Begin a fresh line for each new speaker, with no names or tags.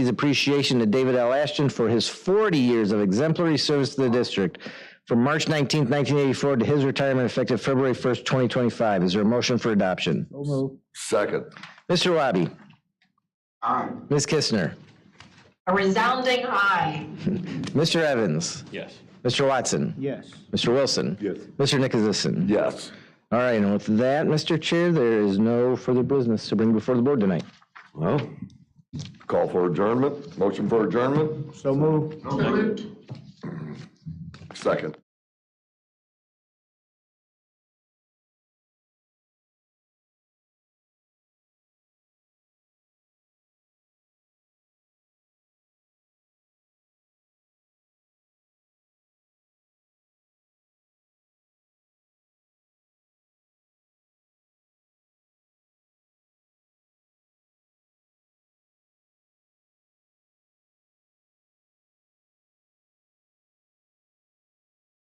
His appreciation to David L. Ashton for his 40 years of exemplary service to the district from March 19, 1984 to his retirement effective February 1st, 2025. Is there a motion for adoption?
So move.
Second.
Mr. Wabi? Ms. Kistner?
A resounding aye.
Mr. Evans?
Yes.
Mr. Watson?
Yes.
Mr. Wilson?
Yes.
Mr. Nicholasison?
Yes.
All right, and with that, Mr. Chair, there is no further business to bring before the board tonight.
Well, call for adjournment, motion for adjournment,
So move.
Salute.
second.